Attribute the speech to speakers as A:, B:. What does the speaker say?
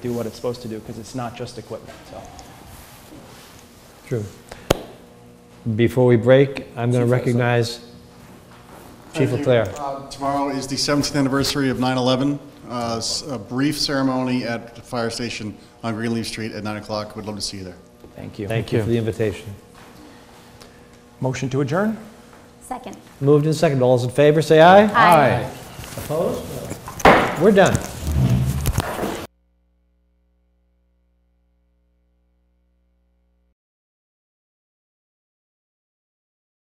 A: do what it's supposed to do because it's not just equipment. So
B: True. Before we break, I'm going to
A: Chief Lasser.
B: recognize Chief
C: Thank you.
B: Leclerc.
C: Uh, Tomorrow is the 17th anniversary of 9/11. Uh, s- A brief ceremony at the fire station on Greenleaf Street at 9 o'clock. Would love to see you there.
A: thank you.
B: Thank you for the invitation.
A: Motion to adjourn?
D: Second.
B: Moved and seconded. All those in favor, say aye.
D: Aye.
B: Opposed? We're done.